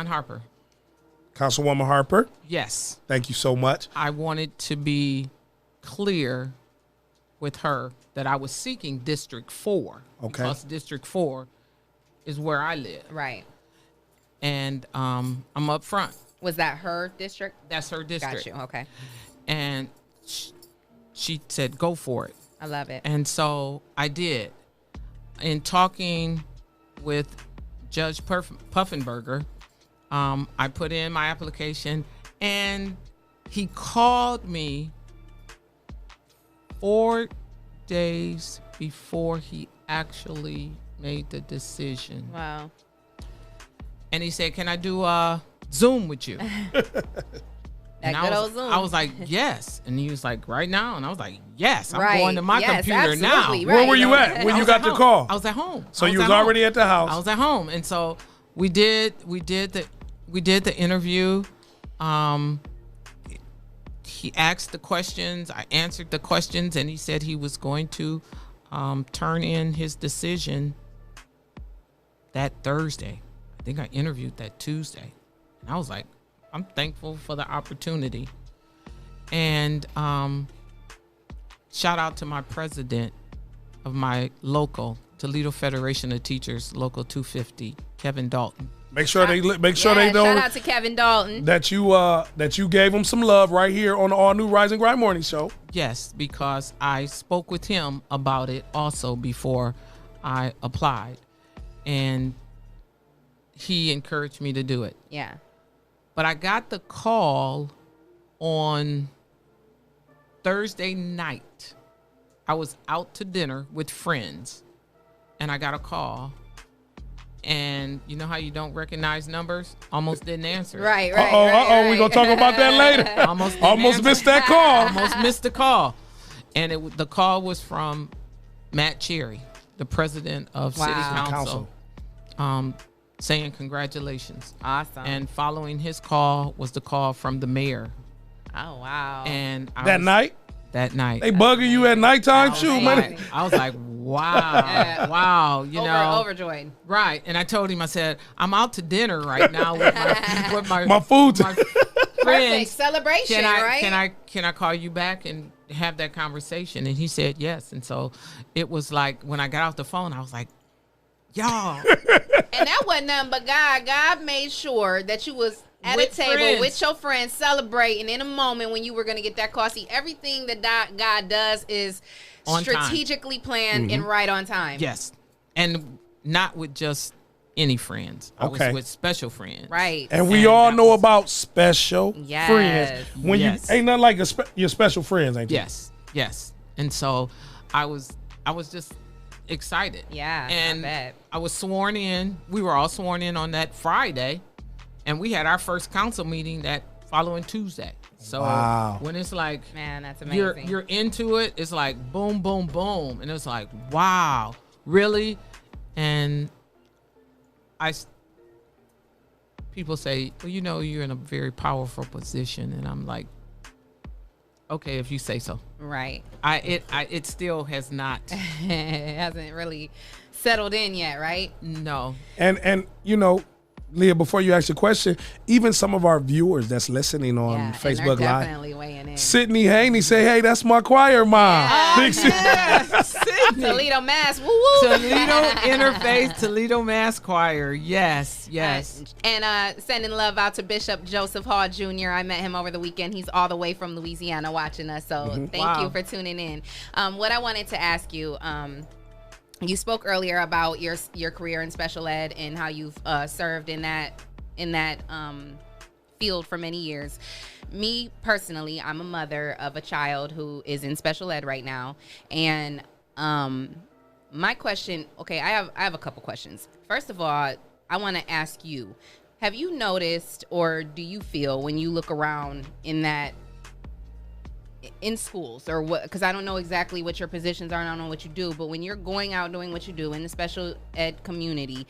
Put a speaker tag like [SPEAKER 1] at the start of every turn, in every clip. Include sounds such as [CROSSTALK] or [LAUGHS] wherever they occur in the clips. [SPEAKER 1] John Harper.
[SPEAKER 2] Councilwoman Harper,
[SPEAKER 1] Yes.
[SPEAKER 2] thank you so much.
[SPEAKER 1] I wanted to be clear with her that I was seeking District Four.
[SPEAKER 2] Okay.
[SPEAKER 1] Because District Four is where I live,
[SPEAKER 3] Right.
[SPEAKER 1] and um, I'm up front.
[SPEAKER 3] Was that her district?
[SPEAKER 1] That's her district.
[SPEAKER 3] Got you. Okay.
[SPEAKER 1] And she, she said, "Go for it."
[SPEAKER 3] I love it.
[SPEAKER 1] And so I did. In talking with Judge Perf- Puffenberger, um, I put in my application and he called me four days before he actually made the decision.
[SPEAKER 3] Wow.
[SPEAKER 1] And he said, Can I do a Zoom with
[SPEAKER 3] [LAUGHS]
[SPEAKER 1] you?
[SPEAKER 3] That
[SPEAKER 1] I
[SPEAKER 3] good
[SPEAKER 1] was,
[SPEAKER 3] old Zoom.
[SPEAKER 1] I was like, yes. And he was like, right now. And I was like, yes, I'm
[SPEAKER 3] Right.
[SPEAKER 1] going to my
[SPEAKER 3] Yes,
[SPEAKER 1] computer now.
[SPEAKER 3] absolutely.
[SPEAKER 2] Where
[SPEAKER 3] Right.
[SPEAKER 2] were you at when
[SPEAKER 1] I
[SPEAKER 2] you
[SPEAKER 1] was
[SPEAKER 2] got
[SPEAKER 1] at
[SPEAKER 2] the
[SPEAKER 1] home.
[SPEAKER 2] call?
[SPEAKER 1] I was at home.
[SPEAKER 2] So
[SPEAKER 1] I
[SPEAKER 2] you was
[SPEAKER 1] home.
[SPEAKER 2] already at the house.
[SPEAKER 1] I was at home, and so we did we did the we did the interview. Um, he asked the questions. I answered the questions, and he said he was going to um, turn in his decision that Thursday. I think I interviewed that Tuesday, and I was like, I'm thankful for the opportunity. And um, shout out to my president of my local Toledo Federation of Teachers, Local 250, Kevin Dalton.
[SPEAKER 2] Make sure they li- make sure
[SPEAKER 3] yeah,
[SPEAKER 2] they know
[SPEAKER 3] Shout out to Kevin Dalton.
[SPEAKER 2] that you uh that you gave them some love right here on the all new Rise and Grind Morning Show.
[SPEAKER 1] Yes, because I spoke with him about it also before I applied. And he encouraged me to do it.
[SPEAKER 3] Yeah.
[SPEAKER 1] But I got the call on Thursday night. I was out to dinner with friends and I got a call. And you know how you don't recognize numbers? Almost didn't answer. it.
[SPEAKER 3] Right. Right.
[SPEAKER 2] Uh oh, uh
[SPEAKER 3] right,
[SPEAKER 2] oh,
[SPEAKER 3] right.
[SPEAKER 2] we gonna talk about that later.
[SPEAKER 1] Almost didn't
[SPEAKER 2] [LAUGHS] Almost
[SPEAKER 1] answer
[SPEAKER 2] missed
[SPEAKER 1] it.
[SPEAKER 2] that
[SPEAKER 1] [LAUGHS]
[SPEAKER 2] call.
[SPEAKER 1] Almost missed the call. And it w- the call was from Matt Cherry, the president of City
[SPEAKER 3] Wow.
[SPEAKER 1] Council,
[SPEAKER 2] Council.
[SPEAKER 1] Um, saying congratulations.
[SPEAKER 3] Awesome.
[SPEAKER 1] And following his call was the call from the mayor.
[SPEAKER 3] oh wow.
[SPEAKER 1] And I
[SPEAKER 2] That
[SPEAKER 1] was-
[SPEAKER 2] night,
[SPEAKER 1] that night,
[SPEAKER 2] they bugging you at nighttime too,
[SPEAKER 3] man.
[SPEAKER 2] man.
[SPEAKER 1] like, I was like, wow,
[SPEAKER 3] [LAUGHS] Yeah.
[SPEAKER 1] wow, you
[SPEAKER 3] over,
[SPEAKER 1] know,
[SPEAKER 3] overjoyed.
[SPEAKER 1] right? And I told him, I said, I'm out to dinner right now with
[SPEAKER 3] [LAUGHS]
[SPEAKER 1] my with my,
[SPEAKER 2] My food's- [LAUGHS]
[SPEAKER 1] my
[SPEAKER 3] Perfect
[SPEAKER 1] friends.
[SPEAKER 3] celebration,
[SPEAKER 1] Can I
[SPEAKER 3] right?
[SPEAKER 1] can I can I call you back and have that conversation? And he said yes. And so it was like when I got off the phone, I was like,
[SPEAKER 3] [LAUGHS]
[SPEAKER 1] y'all,
[SPEAKER 3] And that wasn't nothing but God. God made sure that you was at
[SPEAKER 1] With
[SPEAKER 3] a table
[SPEAKER 1] friends.
[SPEAKER 3] with your friends celebrating in a moment when you were going to get that car. See, everything that di- God does is
[SPEAKER 1] On time.
[SPEAKER 3] strategically planned
[SPEAKER 1] Mm-hmm.
[SPEAKER 3] and right on time.
[SPEAKER 1] yes, and not with just any friends. I
[SPEAKER 2] Okay.
[SPEAKER 1] was with special friends,
[SPEAKER 3] Right.
[SPEAKER 2] And we
[SPEAKER 1] And
[SPEAKER 2] all
[SPEAKER 1] that
[SPEAKER 2] know
[SPEAKER 1] was-
[SPEAKER 2] about special
[SPEAKER 3] Yes.
[SPEAKER 2] friends. When
[SPEAKER 1] Yes.
[SPEAKER 2] you ain't nothing like a spe- your special friends, ain't you?
[SPEAKER 1] Yes, yes. And so I was I was just excited.
[SPEAKER 3] Yeah, I
[SPEAKER 1] And
[SPEAKER 3] bet.
[SPEAKER 1] I was sworn in. We were all sworn in on that Friday and we had our first council meeting that following Tuesday. So
[SPEAKER 2] Wow.
[SPEAKER 1] when it's like
[SPEAKER 3] Man, that's amazing.
[SPEAKER 1] you're you're into it, it's like boom, boom, boom. And it's like, wow, really? And I s- people say, Well, you know, you're in a very powerful position. And I'm like, Okay, if you say so.
[SPEAKER 3] right. [LAUGHS]
[SPEAKER 1] I it I it still has not.
[SPEAKER 3] it hasn't really settled in yet, right?
[SPEAKER 2] Um,
[SPEAKER 1] No.
[SPEAKER 2] And and you know, Leah, before you ask your question, even some of our viewers that's listening on
[SPEAKER 3] yeah, and they're
[SPEAKER 2] Facebook Live,
[SPEAKER 3] definitely weighing in.
[SPEAKER 2] Sydney Haney say, "Hey, that's my choir mom." Big
[SPEAKER 1] [LAUGHS]
[SPEAKER 2] Sid-
[SPEAKER 1] Toledo,
[SPEAKER 3] Toledo, Mass. Woo woo.
[SPEAKER 1] Interfaith Toledo Mass Choir. Yes, yes.
[SPEAKER 3] And uh, sending love out to Bishop Joseph Hall Jr. I met him over the weekend. He's all the way from Louisiana watching us. So thank
[SPEAKER 1] Mm-hmm. Wow.
[SPEAKER 3] you for tuning in. Um, what I wanted to ask you. Um, you spoke earlier about your your career in special ed and how you've uh, served in that in that um, field for many years. Me personally, I'm a mother of a child who is in special ed right now, and um, my question. Okay, I have I have a couple questions. First of all, I want to ask you: Have you noticed, or do you feel when you look around in that in schools or what because i don't know exactly what your positions are and i don't know what you do but when you're going out doing what you do in the special ed community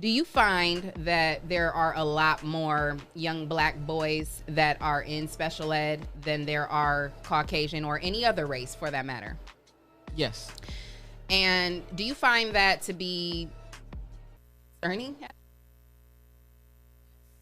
[SPEAKER 3] do you find that there are a lot more young black boys that are in special ed than there are caucasian or any other race for that matter
[SPEAKER 1] Yes.
[SPEAKER 3] and do you find that to be concerning at